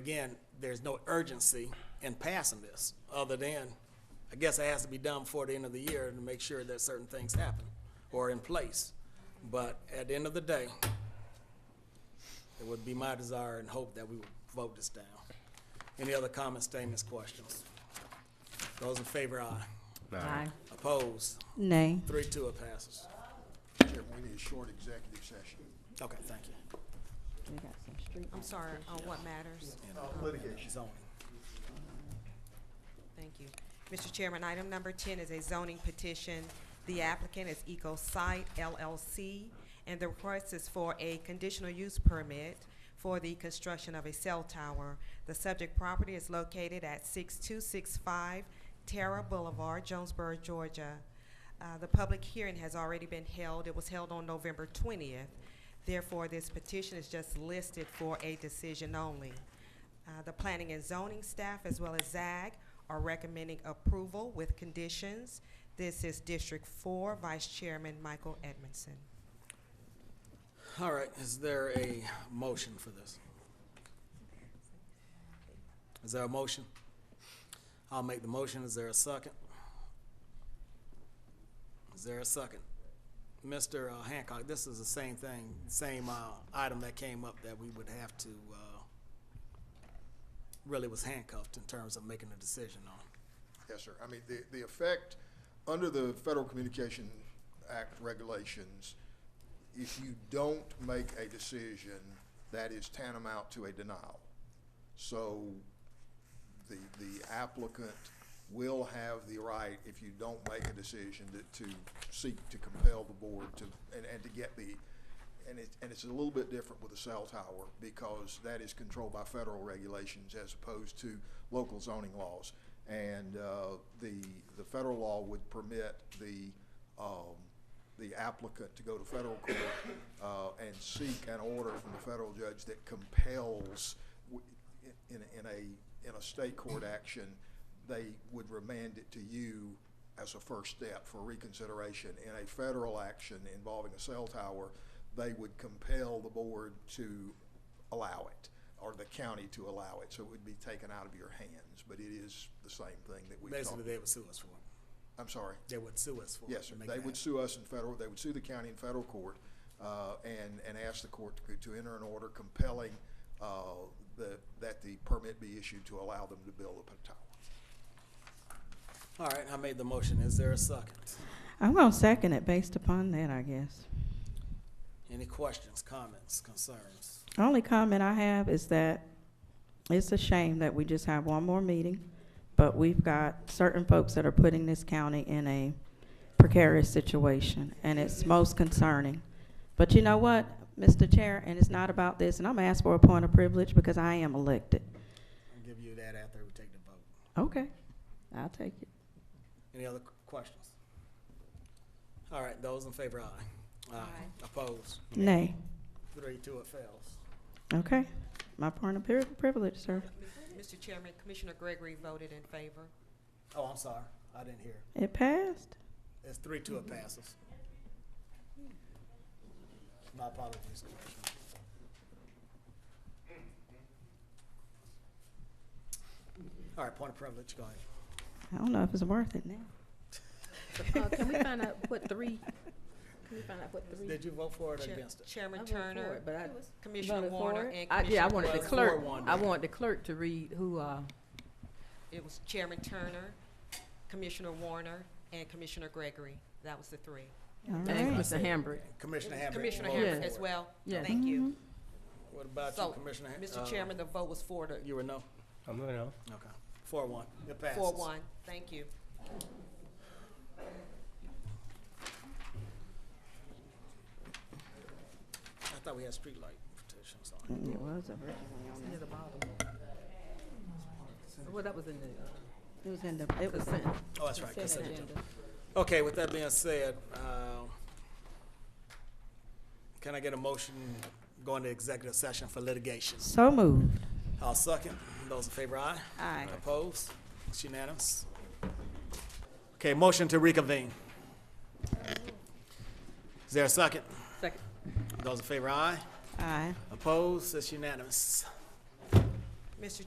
Again, there's no urgency in passing this, other than, I guess it has to be done before the end of the year to make sure that certain things happen or in place. But at the end of the day, it would be my desire and hope that we would vote this down. Any other comments, statements, questions? Those in favor, aye. Aye. Opposed? Nay. Three, two, it passes. Chair, we need a short executive session. Okay, thank you. We got some street I'm sorry, on uh, what matters? Litigation. Zoning. Thank you. Mr. Chairman, item number ten is a zoning petition. The applicant is EcoSite LLC, and the request is for a conditional use permit for the construction of a cell tower. The subject property is located at six-two-six-five Terra Boulevard, Jonesboro, Georgia. Uh, the public hearing has already been held. It was held on November twentieth. Therefore, this petition is just listed for a decision only. Uh, The planning and zoning staff, as well as ZAG, are recommending approval with conditions. This is District Four, Vice Chairman Michael Edmondson. All right, is there a motion for this? Is there a motion? I'll make the motion. Is there a second? Is there a second? Mr. Hancock, this is the same thing, same, uh, item that came up that we would have to, uh, really was handcuffed in terms of making a decision on. Yes, sir. I mean, the, the effect, under the Federal Communication Act regulations, if you don't make a decision, that is tantamount to a denial. So the, the applicant will have the right, if you don't make a decision, to, to seek to compel the board to, and, and to get the, and it, and it's a little bit different with the cell tower, because that is controlled by federal regulations as opposed to local zoning laws. And, uh, the, the federal law would permit the, um, the applicant to go to federal court, uh, and seek an order from the federal judge that compels, w- in, in a, in a state court action, they would remand it to you as a first step for reconsideration. In a federal action involving a cell tower, they would compel the board to allow it, or the county to allow it, so it would be taken out of your hands, but it is the same thing that we talked. Basically, they would sue us for it. I'm sorry. They would sue us for it. Yes, sir. to make They that would sue us in federal, they would sue the county in federal court, uh, and, and ask the court to, to enter an order compelling, uh, the, that the permit be issued to allow them to build a tower. happen. All right, I made the motion. Is there a second? I'm gonna second it based upon that, I guess. Any questions, comments, concerns? Only comment I have is that it's a shame that we just have one more meeting, but we've got certain folks that are putting this county in a precarious situation, and it's most concerning. But you know what, Mr. Chair, and it's not about this, and I'm asked for a point of privilege because I am elected. I'll give you that after we take the vote. Okay, I'll take it. Any other qu- questions? All right, those in favor, aye. Aye. Opposed? Nay. Three, two, it fails. Okay, my point of pri- privilege, sir. Mr. Chairman, Commissioner Gregory voted in favor. Oh, I'm sorry, I didn't hear. It passed. It's three, two, it passes. My apologies, Commissioner. All right, point of privilege, go ahead. I don't know if it's worth it now. Uh, can we find out what three, can we find out what three? Did you vote for it or Chair- against it? I Chairman voted for Turner, it, But I. Commissioner voted for Warner, it. and I- Yeah, Commissioner I wanted Warner. the Four, clerk, one. I wanted the clerk to read who, uh, It was Chairman Turner, Commissioner Warner, and Commissioner Gregory. That was the three. All and right. Mr. Hambrick. Commissioner Hambrick. Commissioner voted Hammond for as it. well. Yeah. Mm-hmm. Thank you. What about you, So, Commissioner? Ham- Mr. uh, Chairman, the vote was four to, You were no? I'm going out. Okay, four, one, it passes. four one. Thank you. I thought we had streetlight petition, sorry. Mm, It was originally on Near the bottom. Well, that was in the there. It was in the, it was, consent. Oh, that's right, consent consent agenda. agenda. Okay, with that being said, uh, can I get a motion going to executive session for litigation? so moved. I'll second. Those in favor, aye. Aye. Opposed? It's unanimous. Okay, motion to reconvene. Is there a second? Second. Those in favor, aye. Aye. Opposed? It's unanimous. Mr.